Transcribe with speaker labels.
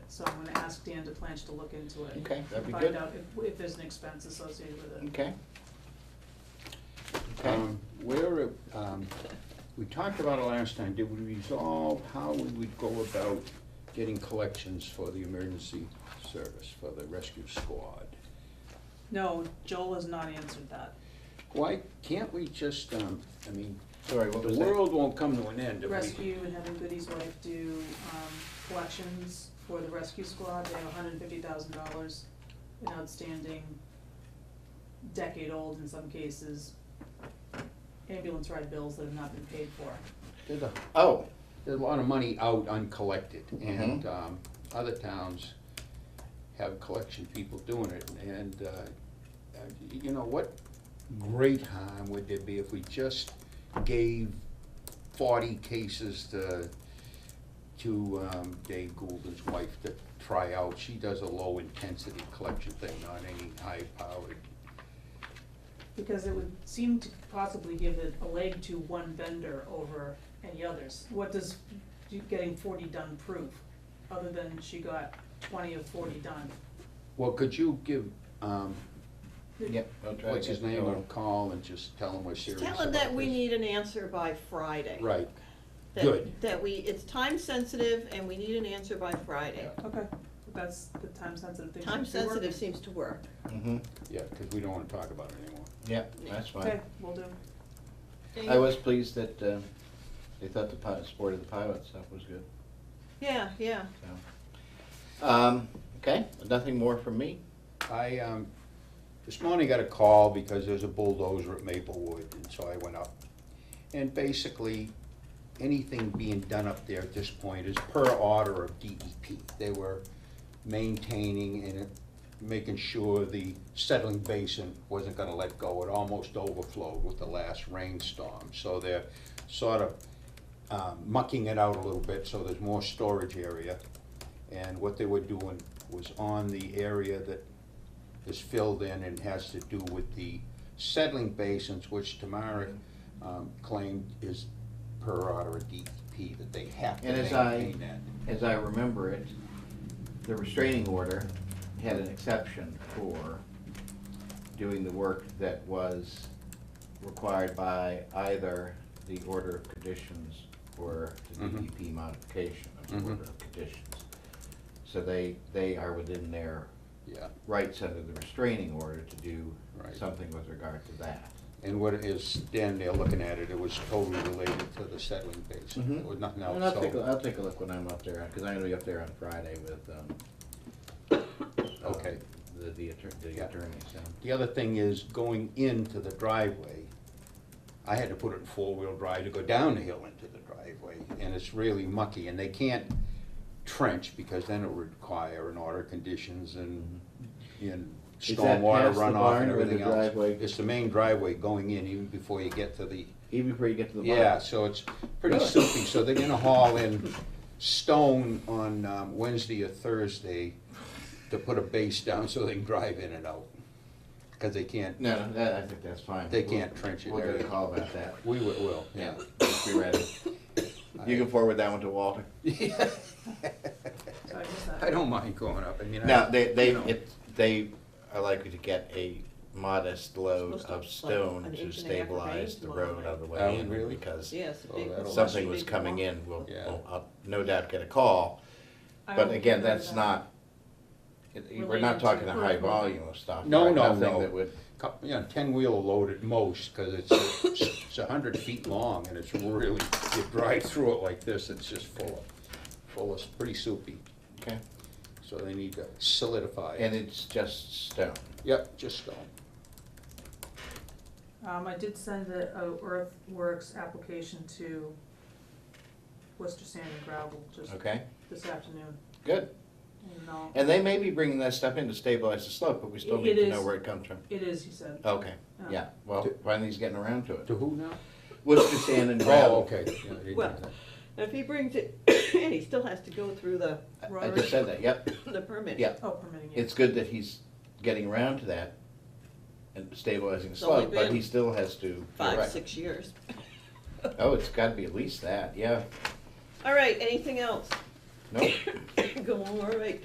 Speaker 1: So I'm gonna ask Dan DePlanch to look into it.
Speaker 2: Okay, that'd be
Speaker 1: Find
Speaker 2: good.
Speaker 1: out if, if there's an expense associated with it.
Speaker 2: Okay. Okay,
Speaker 3: Um,
Speaker 2: where, um, we talked about it last time, did we resolve how we would go about getting collections for the emergency service, for the rescue squad?
Speaker 1: No, Joel has not answered that.
Speaker 2: Why can't we just, um, I mean,
Speaker 3: Sorry,
Speaker 2: the
Speaker 3: what was that?
Speaker 2: world won't come to an end if we.
Speaker 1: Rescue and Having Goody's wife do, um, collections for the rescue squad, they have hundred and fifty thousand dollars in outstanding, decade-old in some cases, ambulance ride bills that have not been paid for.
Speaker 2: There's a
Speaker 3: Oh,
Speaker 2: There's a lot of money out uncollected, and um, other towns have collection people doing it, and, uh, uh, you know, what great harm would there be if we just gave forty cases to, to um, Dave Goulden's wife to try out? She does a low-intensity collection thing, not any high-powered.
Speaker 1: Because it would seem to possibly give it a leg to one vendor over any others. What does you- getting forty done prove, other than she got twenty of forty done?
Speaker 2: Well, could you give, um,
Speaker 3: yeah, I'll try to
Speaker 2: what's his
Speaker 3: get
Speaker 2: name,
Speaker 3: Joel.
Speaker 2: a call and just tell him we're serious
Speaker 4: Tell him
Speaker 2: about
Speaker 4: that we
Speaker 2: this?
Speaker 4: need an answer by Friday.
Speaker 2: Right.
Speaker 4: That-
Speaker 2: good.
Speaker 4: That we, it's time sensitive and we need an answer by Friday.
Speaker 1: Okay, that's the time-sensitive thing.
Speaker 4: Time sensitive seems to work.
Speaker 3: Mhm.
Speaker 2: Yeah, because we don't want to talk about it anymore.
Speaker 3: Yeah, that's fine.
Speaker 1: Okay, will do.
Speaker 3: I was pleased that uh, they thought the pi- sport of the pilot stuff was good,
Speaker 4: Yeah, yeah.
Speaker 3: so. Um, Okay, nothing more from me?
Speaker 2: I, um, this morning got a call because there's a bulldozer at Maplewood, and so I went up. And basically, anything being done up there at this point is per order of DEP. They were maintaining and making sure the settling basin wasn't gonna let go. It almost overflowed with the last rainstorm, so they're sort of um, mucking it out a little bit, so there's more storage area. And what they were doing was on the area that is filled in and has to do with the settling basins, which Tamara um, claimed is per order of DEP, that they have to
Speaker 3: And as I-
Speaker 2: maintain that.
Speaker 3: As I remember it, the restraining order had an exception for doing the work that was required by either the order of conditions or the
Speaker 2: Mhm.
Speaker 3: DEP modification of
Speaker 2: Mhm.
Speaker 3: the order of conditions. So they, they are within their
Speaker 2: Yeah,
Speaker 3: rights under the restraining order to do
Speaker 2: Right.
Speaker 3: something with regard to that.
Speaker 2: and what it is, Dan there looking at it, it was totally related to the settling basin,
Speaker 3: Mhm.
Speaker 2: it was nothing
Speaker 3: And I'll take, a-
Speaker 2: else,
Speaker 3: I'll take a look when I'm up there, because I'm gonna be up there on Friday with, um, uh,
Speaker 2: so, okay.
Speaker 3: the, the attorney, the
Speaker 2: Yeah.
Speaker 3: attorney, so.
Speaker 2: The other thing is going into the driveway, I had to put it in four-wheel drive to go down the hill into the driveway, and it's really mucky, and they can't trench, because then it would require an order conditions and, and
Speaker 3: Mm-hmm. Is that
Speaker 2: stormwater
Speaker 3: past the
Speaker 2: runoff
Speaker 3: barn
Speaker 2: and
Speaker 3: or the
Speaker 2: everything else.
Speaker 3: driveway?
Speaker 2: It's the main driveway going in, even before you get to the,
Speaker 3: Even before you get to the bottom.
Speaker 2: yeah, so it's pretty
Speaker 3: Really?
Speaker 2: soupy, so they're gonna haul in stone on um, Wednesday or Thursday to put a base down so they can drive in and out, because they can't
Speaker 3: No, no, that, I think that's fine.
Speaker 2: They
Speaker 3: We'll-
Speaker 2: can't trench it
Speaker 3: We'll get
Speaker 2: there.
Speaker 3: a call about that.
Speaker 2: We wi- will, yeah.
Speaker 3: Just be ready. You can forward that one to Walter.
Speaker 1: So I guess that-
Speaker 2: I don't mind going up, I mean. I-
Speaker 3: Now, they, they,
Speaker 2: you know,
Speaker 3: it, they are likely to get a modest load
Speaker 4: Supposed to,
Speaker 3: of
Speaker 4: like,
Speaker 3: stone
Speaker 4: an
Speaker 3: to
Speaker 4: inch and a half of
Speaker 3: stabilize
Speaker 4: rain
Speaker 3: the
Speaker 4: tomorrow
Speaker 3: road
Speaker 4: night.
Speaker 3: on the
Speaker 2: Oh,
Speaker 3: way in.
Speaker 2: really?
Speaker 3: Because
Speaker 4: Yes.
Speaker 2: Oh, that'll-
Speaker 3: something was coming in, we'll,
Speaker 2: Yeah.
Speaker 3: we'll, I'll no doubt get a call.
Speaker 1: I
Speaker 3: But
Speaker 1: will
Speaker 3: again,
Speaker 1: figure that
Speaker 3: that's
Speaker 1: out.
Speaker 3: not, it- we're not
Speaker 1: Related to
Speaker 3: talking a high
Speaker 1: approval.
Speaker 3: volume of stuff.
Speaker 2: No,
Speaker 3: right?
Speaker 2: no,
Speaker 3: Nothing
Speaker 2: no.
Speaker 3: that would,
Speaker 2: cou- You know, ten-wheeler load at most, because it's, it's a hundred feet long, and it's really, you drive through it like this, it's just full of, full of, pretty soupy.
Speaker 3: okay,
Speaker 2: So they need to solidify
Speaker 3: and
Speaker 2: it.
Speaker 3: it's just stone.
Speaker 2: Yep, just stone.
Speaker 1: Um, I did send the uh, earthworks application to Worcester Sand and Gravel just
Speaker 3: Okay,
Speaker 1: this afternoon,
Speaker 3: good.
Speaker 1: and I'll-
Speaker 3: And they may be bringing that stuff in to stabilize the slope, but we still
Speaker 1: It-
Speaker 3: need
Speaker 1: it
Speaker 3: to know
Speaker 1: is-
Speaker 3: where it comes from.
Speaker 1: it is, he said.
Speaker 3: Okay,
Speaker 1: Oh.
Speaker 3: yeah, well, finally he's getting around to it.
Speaker 2: To who now?
Speaker 3: Worcester sand and gravel.
Speaker 2: Oh, okay. yeah, they did
Speaker 4: Well,
Speaker 2: that.
Speaker 4: If he brings it, and he still has to go through the,
Speaker 3: I- I
Speaker 1: Rory?
Speaker 3: just said that, yep.
Speaker 4: the permit.
Speaker 3: Yeah.
Speaker 1: Oh, permitting, yeah.
Speaker 3: It's good that he's getting around to that and stabilizing the
Speaker 4: It's only
Speaker 3: slope, but
Speaker 4: been
Speaker 3: he still has to. you're
Speaker 4: Five,
Speaker 3: right.
Speaker 4: six years.
Speaker 3: Oh, it's gotta be at least that, yeah.
Speaker 4: All right, anything else?
Speaker 3: Nope.
Speaker 4: Go on, all right.